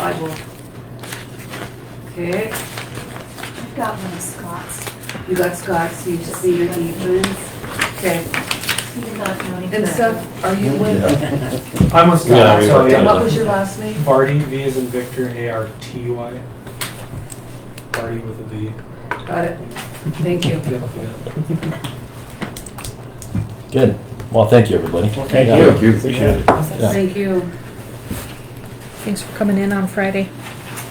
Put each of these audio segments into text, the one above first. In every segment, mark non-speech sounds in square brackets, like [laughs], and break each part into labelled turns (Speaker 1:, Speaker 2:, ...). Speaker 1: sidewalk. Okay,
Speaker 2: I've got one of Scott's,
Speaker 1: you got Scott's, you see your easements. Okay,
Speaker 2: he did not know anything.
Speaker 1: and Seth, are you with?
Speaker 3: I'm with
Speaker 4: Yeah,
Speaker 3: Scott,
Speaker 4: we
Speaker 3: so
Speaker 4: worked
Speaker 3: yeah.
Speaker 4: on
Speaker 1: What was your last name?
Speaker 3: Vardy, V is in Victor, A R T Y. Vardy with a V.
Speaker 1: Got it. Thank you.
Speaker 3: Yeah, yeah.
Speaker 4: Good. Well, thank you, everybody.
Speaker 5: thank
Speaker 4: Yeah,
Speaker 5: you.
Speaker 4: Appreciate it. Yeah.
Speaker 1: Thank you.
Speaker 6: Thanks for coming in on Friday.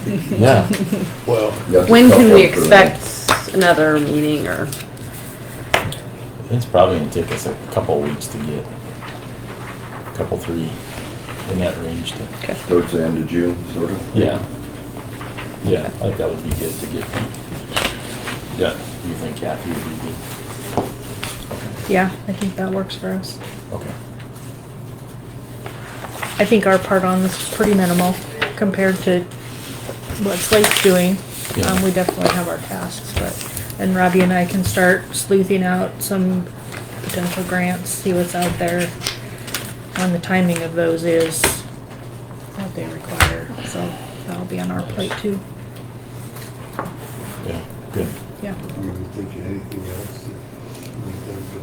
Speaker 4: Yeah.
Speaker 7: When can we expect another meeting or,
Speaker 4: It's probably gonna take us a couple weeks to get, couple, three, in that range to,
Speaker 7: okay,
Speaker 5: Towards the end of June, sort of.
Speaker 4: yeah. Yeah, I think that would be good to get. Yeah, you think Kathy would be good?
Speaker 6: Yeah, I think that works for us.
Speaker 4: Okay.
Speaker 6: I think our part on this is pretty minimal compared to what Slate's doing.
Speaker 4: Yeah.
Speaker 6: Um, we definitely have our tasks, but, and Robbie and I can start sleuthing out some potential grants, see what's out there. On the timing of those is what they require, so that'll be on our plate too,
Speaker 4: Yeah, good.
Speaker 6: yeah.
Speaker 8: Do you think of anything else?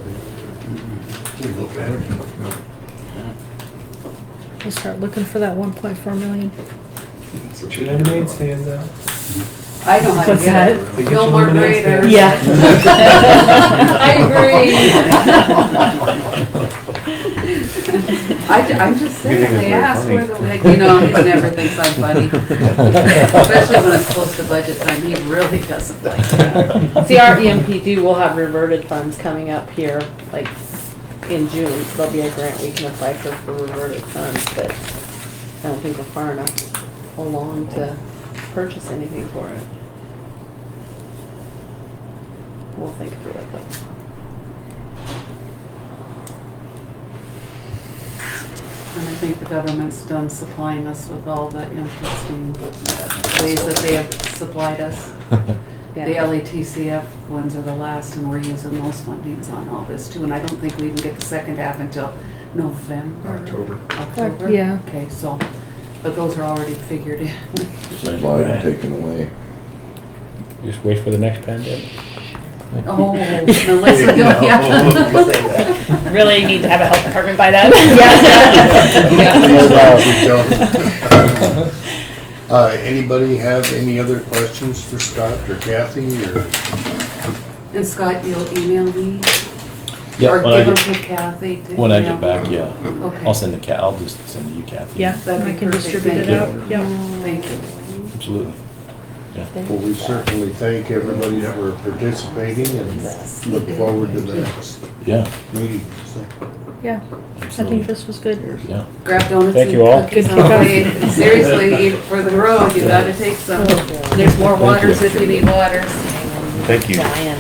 Speaker 8: that we Look at
Speaker 6: We'll start looking for that one point four million.
Speaker 3: Lemonade stands out.
Speaker 1: I know how to
Speaker 6: What's
Speaker 1: get it.
Speaker 3: They get
Speaker 1: No
Speaker 3: you
Speaker 1: more
Speaker 3: lemonade
Speaker 1: grader. [laughs] [laughs]
Speaker 3: stands.
Speaker 1: I agree.
Speaker 4: [laughs]
Speaker 1: I, ju- I'm just saying, they ask where the, like, you know, he never thinks I'm funny. Especially when it's close to budget time, he really doesn't like that.
Speaker 7: see, our EMPD will have reverted funds coming up here, like, in June. There'll be a grant we can apply for, for reverted funds, but I don't think we're far enough along to purchase anything for it. We'll think through it, but.
Speaker 1: And I think the government's done supplying us with all the interesting ways that they have supplied us. The E
Speaker 7: yeah.
Speaker 1: LATCF ones are the last, and we're using those fundings on all this too, and I don't think we even get the second half until November.
Speaker 8: October.
Speaker 1: October?
Speaker 6: Yeah.
Speaker 1: Okay, so, but those are already figured in. [laughs]
Speaker 5: Supply taken away.
Speaker 9: [laughs] Just wait for the next pandemic.
Speaker 1: Oh,
Speaker 6: [laughs]
Speaker 1: unless you go, yeah.
Speaker 7: Really need to have a health department
Speaker 6: [laughs]
Speaker 7: by [laughs] then? Yeah.
Speaker 8: Uh, anybody have any other questions for Scott or Kathy or?
Speaker 1: And Scott, you'll email me?
Speaker 4: Yeah, when I
Speaker 1: Or give
Speaker 4: get,
Speaker 1: them to Kathy? to
Speaker 4: when I
Speaker 1: email?
Speaker 4: get back, yeah.
Speaker 1: Okay.
Speaker 4: I'll send the cat, I'll just send you Kathy.
Speaker 6: Yeah,
Speaker 1: That'd be
Speaker 6: I can
Speaker 1: perfect.
Speaker 6: distribute it
Speaker 1: Thank
Speaker 6: out,
Speaker 1: you.
Speaker 6: yeah.
Speaker 1: Thank you.
Speaker 4: Absolutely.
Speaker 8: Well, we certainly thank everybody that were participating and look forward to the next
Speaker 4: Yeah,
Speaker 8: meeting. So,
Speaker 6: Yeah, I think
Speaker 4: absolutely,
Speaker 6: this was good.
Speaker 4: yeah.
Speaker 1: Grab donuts
Speaker 9: Thank
Speaker 1: and
Speaker 9: you all.
Speaker 1: cookies on the
Speaker 4: [laughs]
Speaker 1: way. Seriously, even for the road, you gotta take some. There's more waters if you need waters.
Speaker 5: Thank you.
Speaker 7: Diane.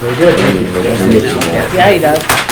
Speaker 8: Very good.
Speaker 7: Yeah, he does.